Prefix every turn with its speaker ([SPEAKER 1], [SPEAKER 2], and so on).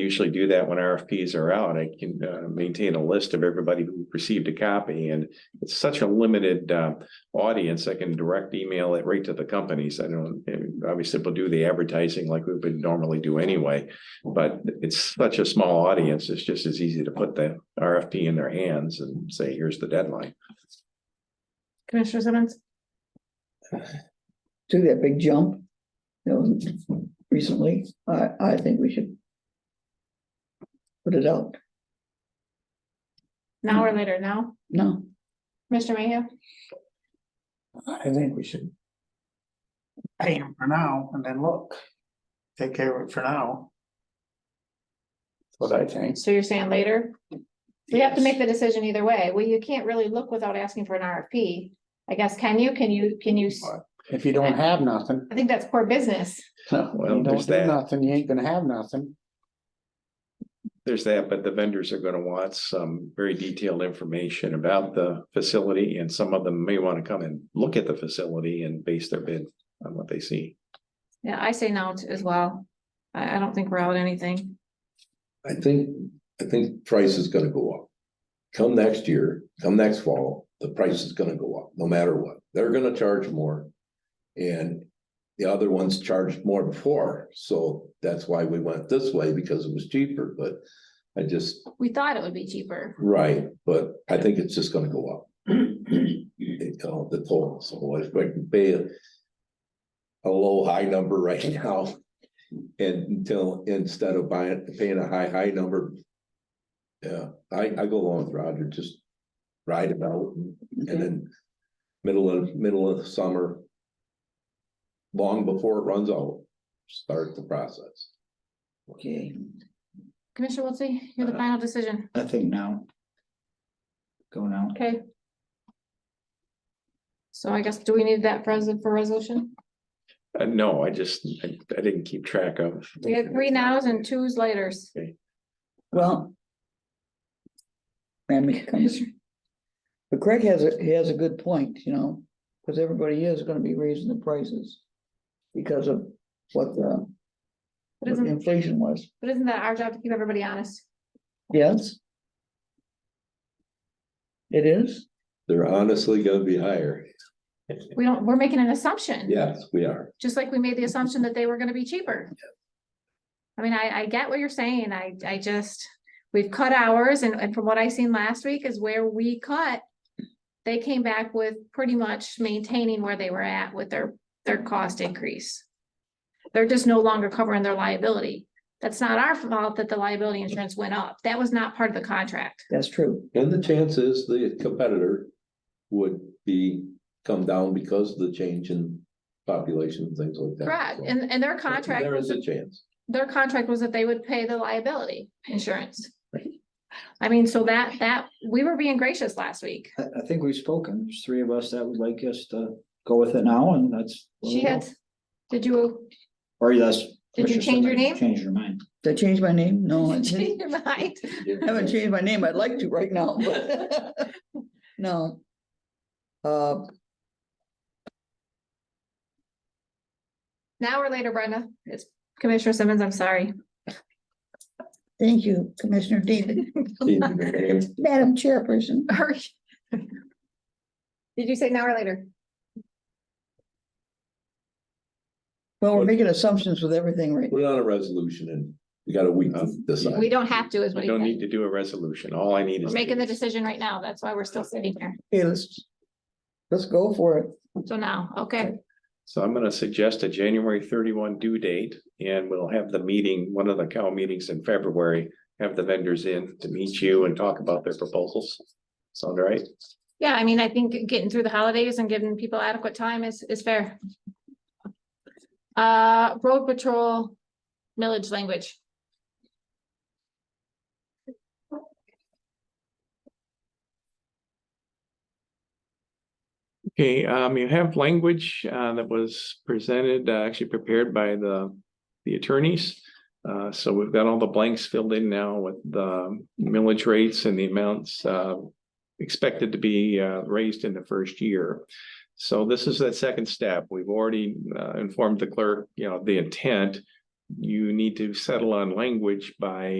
[SPEAKER 1] usually do that when RFPs are out. I can uh, maintain a list of everybody who received a copy and it's such a limited uh, audience. I can direct email it right to the companies. I don't, I mean, obviously we'll do the advertising like we would normally do anyway. But it's such a small audience. It's just as easy to put the RFP in their hands and say, here's the deadline.
[SPEAKER 2] Commissioner Simmons?
[SPEAKER 3] do that big jump. You know, recently, I, I think we should. Put it out
[SPEAKER 2] Now or later now?
[SPEAKER 3] now.
[SPEAKER 2] Commissioner Mayhew?
[SPEAKER 4] I think we should. Pay him for now and then look, take care of it for now. That's What I think.
[SPEAKER 2] So you're saying later? We have to make the decision either way. Well, you can't really look without asking for an RFP. I guess, can you, can you, can you, s-
[SPEAKER 4] If you don't have nothing,
[SPEAKER 2] I think that's poor business.
[SPEAKER 4] no,
[SPEAKER 1] Well,
[SPEAKER 4] you
[SPEAKER 1] there's
[SPEAKER 4] don't do
[SPEAKER 1] that.
[SPEAKER 4] nothing, you ain't gonna have nothing.
[SPEAKER 1] There's that, but the vendors are going to want some very detailed information about the facility and some of them may want to come and look at the facility and base their bid on what they see.
[SPEAKER 2] Yeah, I say no t- as well. I, I don't think we're out anything.
[SPEAKER 5] I think, I think price is gonna go up. Come next year, come next fall, the price is gonna go up, no matter what. They're gonna charge more. And the other ones charged more before, so that's why we went this way, because it was cheaper, but I just,
[SPEAKER 2] We thought it would be cheaper.
[SPEAKER 5] right, but I think it's just gonna go up. You know, the total, so I expect to pay a a low, high number right now. And until, instead of buying, paying a high, high number. Yeah, I, I go along with Roger, just ride it out and then middle of, middle of summer. Long before it runs out, start the process.
[SPEAKER 3] Okay,
[SPEAKER 2] Commissioner Wiltie, you're the final decision.
[SPEAKER 6] I think now. Go now.
[SPEAKER 2] Okay. So I guess, do we need that for, res- for resolution?
[SPEAKER 1] Uh, no, I just, I, I didn't keep track of.
[SPEAKER 2] We had three nows and two's laters.
[SPEAKER 3] well. Man, it comes. But Craig has a, he has a good point, you know, because everybody is gonna be raising the prices. Because of what the
[SPEAKER 2] But
[SPEAKER 3] what the
[SPEAKER 2] isn't,
[SPEAKER 3] inflation was,
[SPEAKER 2] but isn't that our job to keep everybody honest?
[SPEAKER 3] yes? It is,
[SPEAKER 5] They're honestly gonna be higher.
[SPEAKER 2] We don't, we're making an assumption.
[SPEAKER 5] Yes, we are.
[SPEAKER 2] just like we made
[SPEAKER 5] Mm-hmm.
[SPEAKER 2] the assumption that they were gonna be cheaper. I mean, I, I get what you're saying, I, I just, we've cut hours, and, and from what I seen last week is where we cut. They came back with pretty much maintaining where they were at with their, their cost increase. They're just no longer covering their liability, that's not our fault that the liability insurance went up, that was not part of the contract.
[SPEAKER 3] that's true,
[SPEAKER 5] And the chances the competitor would be, come down because of the change in population and things like that.
[SPEAKER 2] Correct,
[SPEAKER 5] So,
[SPEAKER 2] and, and their contract,
[SPEAKER 5] There is a chance.
[SPEAKER 2] their contract was that they would pay the liability insurance. I mean, so that, that, we were being gracious last week.
[SPEAKER 6] I, I think we've spoken. There's three of us that would like us to go with it now and that's. where
[SPEAKER 2] She
[SPEAKER 6] we go.
[SPEAKER 2] had, did you
[SPEAKER 6] Or yes.
[SPEAKER 2] Did you change your name?
[SPEAKER 6] Change your mind.
[SPEAKER 3] did I change my name? No, I didn't.
[SPEAKER 2] change your mind?
[SPEAKER 3] I haven't changed my name. I'd like to right now, but no. Uh,
[SPEAKER 2] Now or later, Brenda? It's Commissioner Simmons, I'm sorry.
[SPEAKER 3] thank you, Commissioner David,
[SPEAKER 5] Change
[SPEAKER 3] Madam Chairperson.
[SPEAKER 2] Hurry. Did you say now or later?
[SPEAKER 3] Well, we're making assumptions with everything right.
[SPEAKER 5] Put it on a resolution and we got a week to
[SPEAKER 2] We
[SPEAKER 5] decide.
[SPEAKER 2] don't have to is what
[SPEAKER 1] We
[SPEAKER 2] he
[SPEAKER 1] don't need
[SPEAKER 2] said.
[SPEAKER 1] to do a resolution. All I need
[SPEAKER 2] We're
[SPEAKER 1] is.
[SPEAKER 2] making the decision right now. That's why we're still sitting here.
[SPEAKER 3] Okay, let's, let's go for it.
[SPEAKER 2] So now, okay,
[SPEAKER 1] So I'm gonna suggest a January thirty-one due date, and we'll have the meeting, one of the Cal meetings in February, have the vendors in to meet you and talk about their proposals. Sound all right?
[SPEAKER 2] yeah, I mean, I think getting through the holidays and giving people adequate time is, is fair. Uh, road patrol millage language.
[SPEAKER 1] Okay, um, you have language, uh, that was presented, uh, actually prepared by the, the attorneys. Uh, so we've got all the blanks filled in now with the millage rates and the amounts, uh, expected to be, uh, raised in the first year. So this is that second step. We've already, uh, informed the clerk, you know, the intent. You need to settle on language by